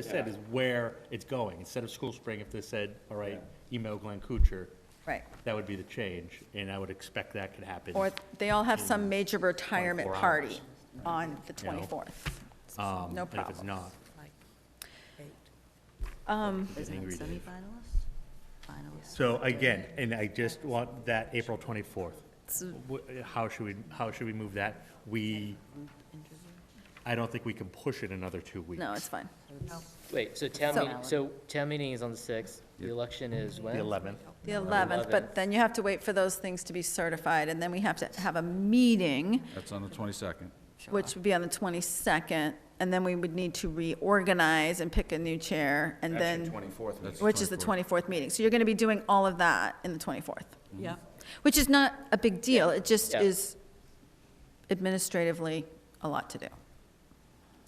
they said is where it's going. Instead of School Spring, if they said, all right, email Glenn Kuchar, Right. that would be the change, and I would expect that could happen. Or they all have some major retirement 24 hours. party on the You know? 24th. um, No And if it's problem. not, Is Angry it Dave. semifinalist? Finalist? So again, and I just want that April 24th. So- Wh- How should we, how should we move that? We, I don't think we can push it another two weeks. No, it's fine. Wait, so town So- meeting, so town meeting is on the sixth, the election is when? The 11th. The 11th, but 11th. then you have to wait for those things to be certified, and then we have to have a meeting, That's on the 22nd. which would be on the 22nd, and then we would need to reorganize and pick a new chair, and then, That's which is the 24th meeting. So you're going to be doing all of that in the 24th, Yeah. which is not a big deal. It just Yeah. is administratively a lot to do.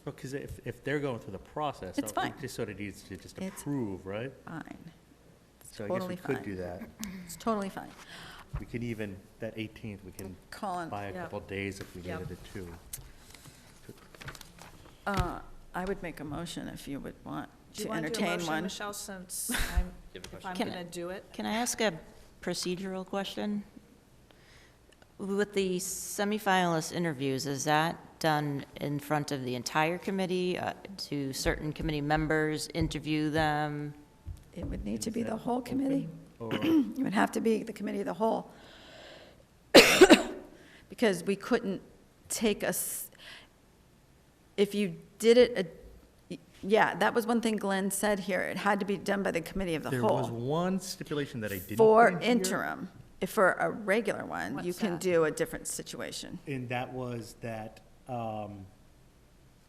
Because if, if they're going through the process. It's don't we fine. Just sort of needs to just It's- approve, right? Fine. It's So I guess totally we could do fine. that. It's totally fine. We could even, that 18th, we can Colin, buy a Yeah. couple days if we Yeah. needed it too. uh, I would make a motion if you would want Do you to want to do a entertain motion, one. Michelle, since I'm, if I'm Can I- going to do it? Can I ask a procedural question? With the semifinalist interviews, is that done in front of the entire committee? uh, Do certain committee members interview them? It would need to be Is the that whole committee. Or, It would have to be the committee of the whole. Because we couldn't take us, if you did it, a- yeah, that was one thing Glenn said here. It had to be done by the committee of the there was whole. one stipulation that I didn't. For put in here, interim, if for a regular one, you What's can that? do a different situation. And that was that, um,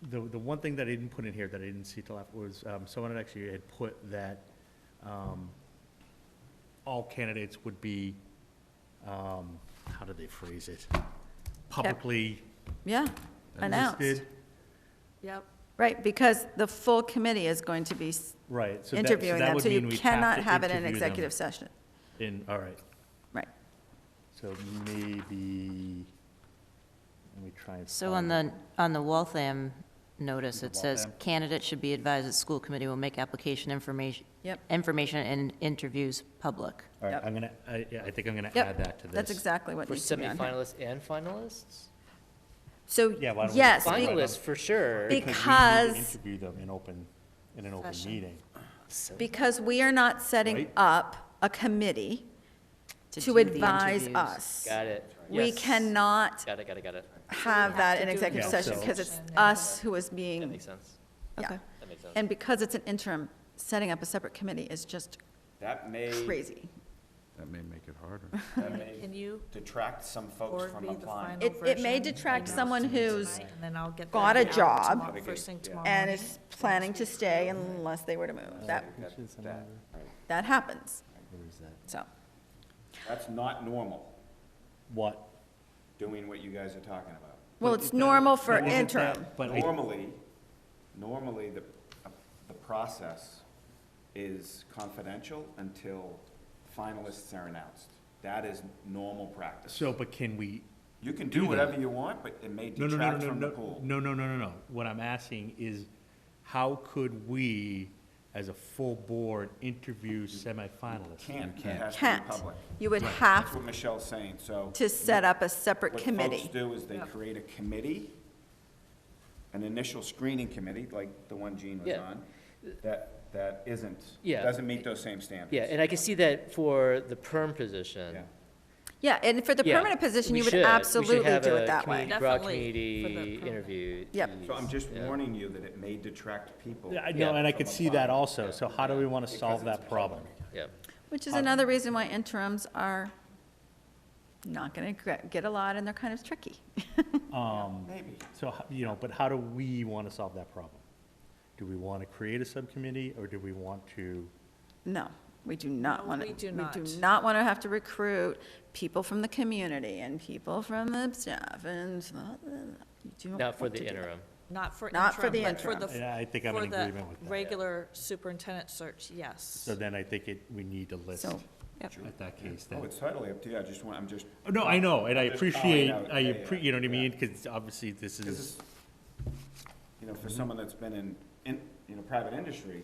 the, the one thing that I didn't put in here that I didn't see till after was, um, someone had actually had put that, um, all candidates would be, um, how did they phrase it? Publicly Yeah, announced. listed. Yep. Right, because the full committee is going to be s- Right. so that- so interviewing that them, would so you mean we'd cannot to have it in interview them executive session. In, all right, Right. so maybe, let me try and. So on find the, on the Waltham notice, The it says Waltham. candidates should be advised that school committee will make application information, Yep. information and interviews public. All right, Yep. I'm gonna, I, yeah, I think I'm gonna Yep, add that to this. That's exactly what For needs to be on here. semifinalists and finalists? So, Yeah, why don't we- yes, be- Finalists, for sure. Be- Because we need Because- to interview them in open, in an open Session. meeting. because we are not setting Right. up a committee to do the advise interviews. us. Got it. We Yes. cannot Got it, got it, got it. have that in do it executive in session Yeah, so- because it's session. us who is That being, makes sense. yeah. Okay. That makes sense. And because it's an interim, setting up a separate committee is just That may, crazy. That may make it harder. that may Can you detract some forward folks from me the final applying. It- version? it may detract Email someone to me who's tonight, and then I'll get got that a out job tomorrow- First thing tomorrow And morning. is planning to stay unless they were to move. That, That- that- right. that happens, so. That's not normal, What? doing what you guys are talking about. Well, it's normal for interim. But I- Normally, normally, the, the process is confidential until finalists are announced. That is normal practice. so, but can we? You can do do that. whatever you want, but it may No, no, no, detract no, from the no, pool. no, no, no, no, no. What I'm asking is, how could we, as a full board, interview semifinalists? Can't, it can't. has to Can't. be public. You would That's have what Michelle's saying, so. to set up a separate What committee. folks do is they create a committee, an initial screening committee, like the one Gene was Yeah. on, that, that isn't, Yeah. doesn't meet those same standards. Yeah, and I can see that for the perm position. Yeah. Yeah, and for the Yeah, permanent position, we you would should. We should absolutely have do a it that way. community- Broad Definitely for the community permanent. interview. Yep. So I'm just Yeah. warning you that it may detract people. Yeah, I know, Yeah. and I could see that From a also, so how do we wanna Because solve it's that problem? Yep. Which is another reason why interims are not going to get a lot, and they're kind of tricky. Um, Maybe. so, ho- you know, but how do we wanna solve that problem? Do we wanna create a subcommittee, or do we want to? No, we do not No, want to. we do We do not. not want to have to recruit people from the community and people from the staff and, uh, you do not Not for want the to do that. interim. Not for Not for interim, the but for the, interim. Yeah, I think I'm for in the agreement with that. regular superintendent search, yes. So then I think it, we need to list So- at that case Oh, then. it's totally up to you, I just want, I'm just, Oh, No, I know, and I Just calling appreciate, out, I, yeah, yeah, appre- you know what I yeah. mean, because obviously this because is, it's, you know, for someone that's been in, in, you know, private industry,